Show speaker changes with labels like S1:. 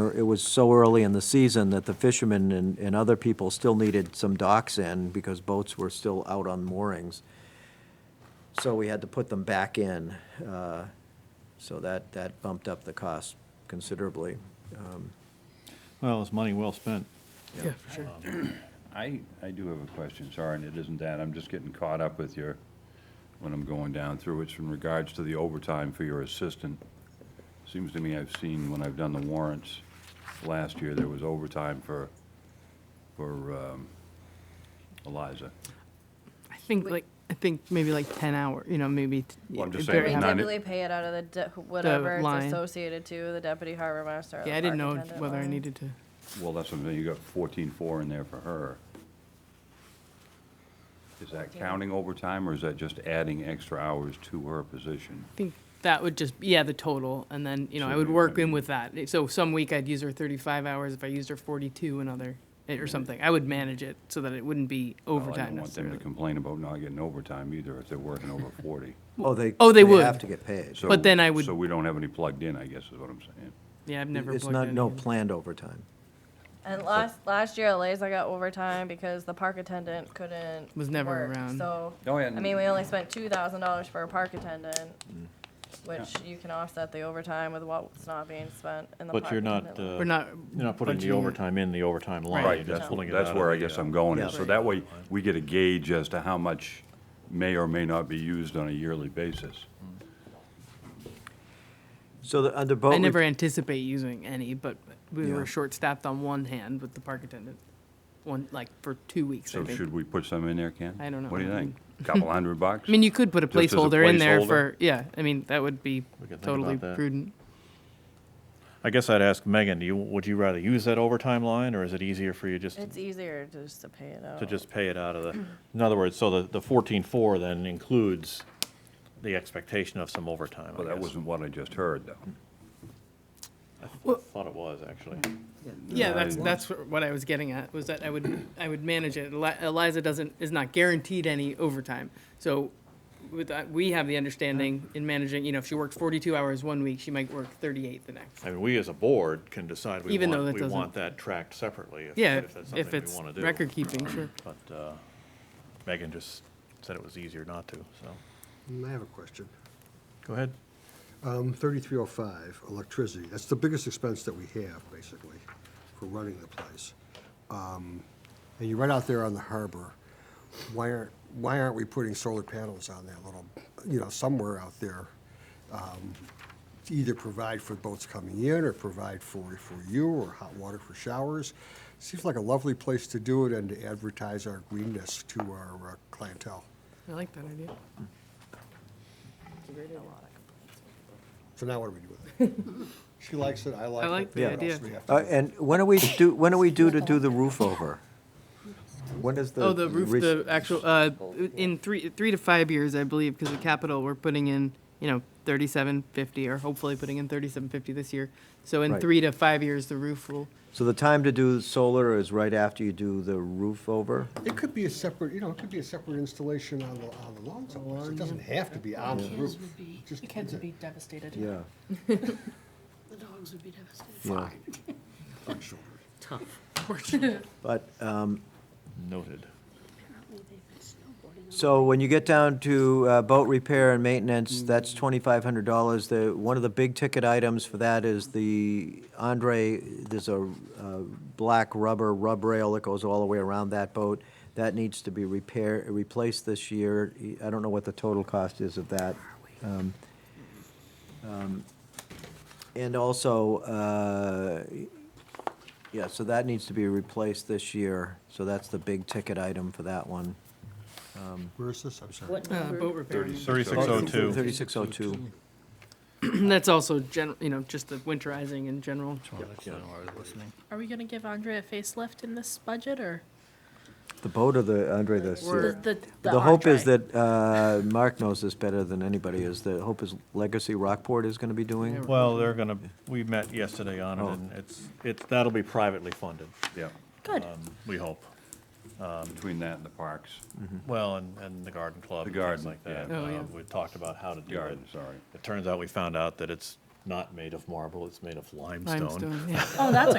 S1: were, it was so early in the season that the fishermen and, and other people still needed some docks in because boats were still out on moorings. So we had to put them back in. uh, So that, that bumped up the cost considerably. Um,
S2: Well, it's money well spent.
S3: Yeah, for sure.
S4: I, I do have a question, sorry, and it isn't that, I'm just getting caught up with your, when I'm going down through, it's in regards to the overtime for your assistant. Seems to me I've seen, when I've done the warrants, last year, there was overtime for, for um, Eliza.
S3: I think like, I think maybe like 10 hour, you know, maybe. t-
S4: Well, I'm
S3: yeah,
S4: just
S3: very
S4: saying
S5: They
S4: it's
S3: high.
S4: not-
S5: typically pay it out of the, de- whatever
S3: line.
S5: it's associated to, the deputy harbor master. or the
S3: Yeah, I didn't
S5: park
S3: know
S5: attendant
S3: whether I
S5: line.
S3: needed to.
S4: Well, that's something, you got fourteen-four in there for her. Is that counting overtime, or is that just adding extra hours to her position?
S3: I think that would just, yeah, the total, and then, you know, I
S4: So
S3: would
S4: you-
S3: work
S4: I
S3: in
S4: mean-
S3: with that. So some week I'd use her 35 hours, if I used her 42 another, eh, or something. I would manage it so that it wouldn't be
S4: Well, Oh, I
S3: overtime
S4: don't want them to
S3: necessarily.
S4: complain about not getting overtime either, if they're working over forty.
S1: Oh, they.
S3: Oh, they would.
S1: have to get paid.
S4: So-
S3: But then I would-
S4: So we don't have any plugged in, I guess is what I'm saying.
S3: Yeah, I've never
S1: It's
S3: plugged
S1: not,
S3: in
S1: no
S3: again.
S1: planned overtime.
S5: And last, last year, Eliza got overtime because the park attendant couldn't.
S3: Was never
S5: work,
S3: around.
S5: So,
S4: Oh,
S5: I
S4: yeah, Mm.
S5: mean, we only spent two thousand dollars for a park attendant, which you can offset the overtime with what's not being spent in the park
S2: But you're not,
S5: attendant line.
S2: uh,
S3: We're not.
S2: you're not putting the
S3: budgeting it.
S2: overtime in the overtime line.
S4: Right,
S2: You're
S4: that's,
S2: just pulling it
S4: that's
S2: out of
S4: where I
S2: the,
S4: guess
S2: uh,
S4: I'm going,
S1: Yeah.
S4: is so that way we get a gauge as to how much may or may not be used on a yearly basis.
S3: Mm.
S1: So the, under boat.
S3: I
S1: re-
S3: never anticipate using any, but we
S1: Yeah.
S3: were short-staffed on one hand with the park attendant, one, like, for two weeks, I
S4: So
S3: think.
S4: should we put some in there, Ken?
S3: I don't know.
S4: What do you think? Couple hundred bucks?
S3: I mean, you could put a
S4: Just as a
S3: placeholder in there
S4: placeholder?
S3: for, yeah, I mean, that would be
S2: We could think
S3: totally
S2: about that.
S3: prudent.
S2: I guess I'd ask Megan, do you, would you rather use that overtime line, or is it easier for you just
S5: It's easier just to pay it out.
S2: to just pay it out of the, in other words, so the, the fourteen-four then includes the expectation of some overtime, I
S4: Well, that
S2: guess.
S4: wasn't what I just heard,
S3: Mm.
S4: though.
S3: Well-
S2: Thought it was, actually.
S3: Yeah,
S4: No,
S3: that's,
S4: I-
S3: that's wh- what I was getting at, was that I would, I would manage it. Eli- Eliza doesn't, is not guaranteed any overtime. So with, that, we have the understanding in managing, you know, if she worked 42 hours one week, she might work 38 the next.
S2: I mean, we as a board can decide we
S3: Even though that
S2: want, we
S3: doesn't-
S2: want that tracked separately, if,
S3: Yeah,
S2: if that's
S3: if
S2: something we
S3: it's
S2: wanna do.
S3: record keeping, sure.
S2: But, uh, Megan just said it was easier not to, so,
S6: Mm, I have a question.
S2: go ahead.
S6: Um, 3305, electricity, that's the biggest expense that we have, basically, for running the place. Um, And you're right out there on the harbor. Why aren't, why aren't we putting solar panels on that little, you know, somewhere out there? um, To either provide for boats coming in, or provide for, for you, or hot water for showers. Seems like a lovely place to do it and to advertise our greenness to our uh, clientele.
S3: I like that idea.
S6: So now what do we do with it? She likes it, I like it.
S3: I like the
S6: what
S3: idea.
S6: else do we have to
S1: Uh,
S6: do?
S1: and when are we do, when are we due to do the roof over? When is the?
S3: Oh, the roof,
S1: res-
S3: the actual, uh, in three, three to five years, I believe, because the capital, we're putting in, you know, thirty-seven fifty, or hopefully putting in thirty-seven fifty this year. So in
S1: Right.
S3: three to five years, the roof will,
S1: So the time to do solar is right after you do the roof over?
S6: It could be a separate, you know, it could be a separate installation on the, on the lawn someplace. It doesn't have to be on the roof.
S7: Kids would be,
S6: Just
S7: the kids would be devastated.
S1: Yeah.
S7: The dogs would be devastated.
S1: Yeah.
S6: on shoulder.
S1: But, um,
S2: Noted.
S7: Apparently they've been snowboarding.
S1: so when you get down to uh, boat repair and maintenance, that's twenty-five hundred dollars. The, one of the big ticket items for that is the Andre, there's a, uh black rubber rub rail that goes all the way around that boat. That needs to be repair, replaced this year. I don't know what the total cost is of that. Um, um, And also, uh, Yeah, so that needs to be replaced this year, so that's the big ticket item for that one.
S6: Where is this? I'm sorry.
S3: uh,
S7: What
S3: boat
S7: number?
S3: repair.
S2: Thirty-six oh two.
S1: Thirty-six oh two.
S3: That's also gen, you know, just the winterizing in general.
S7: Are we gonna give Andre a facelift in this budget, or?
S1: The boat or the, Andre, the steer?
S7: The,
S1: The hope is
S7: Andre.
S1: that, uh, Mark knows this better than anybody, is the hope is Legacy Rockport is gonna be doing?
S2: Well, they're gonna, we met yesterday on it,
S1: Oh.
S2: and it's, it's, that'll be privately funded,
S4: Yeah,
S7: Good.
S2: um, we hope.
S4: between that and the parks,
S2: Well, and, and the garden club. and
S4: The
S2: things
S4: garden,
S2: like that.
S4: yeah.
S3: Oh, yeah.
S2: Um, We talked about how to do it.
S4: garden, sorry.
S2: It turns out we found out that it's
S8: not made of marble, it's made of limestone.
S2: Limestone, yeah.
S3: Oh, that's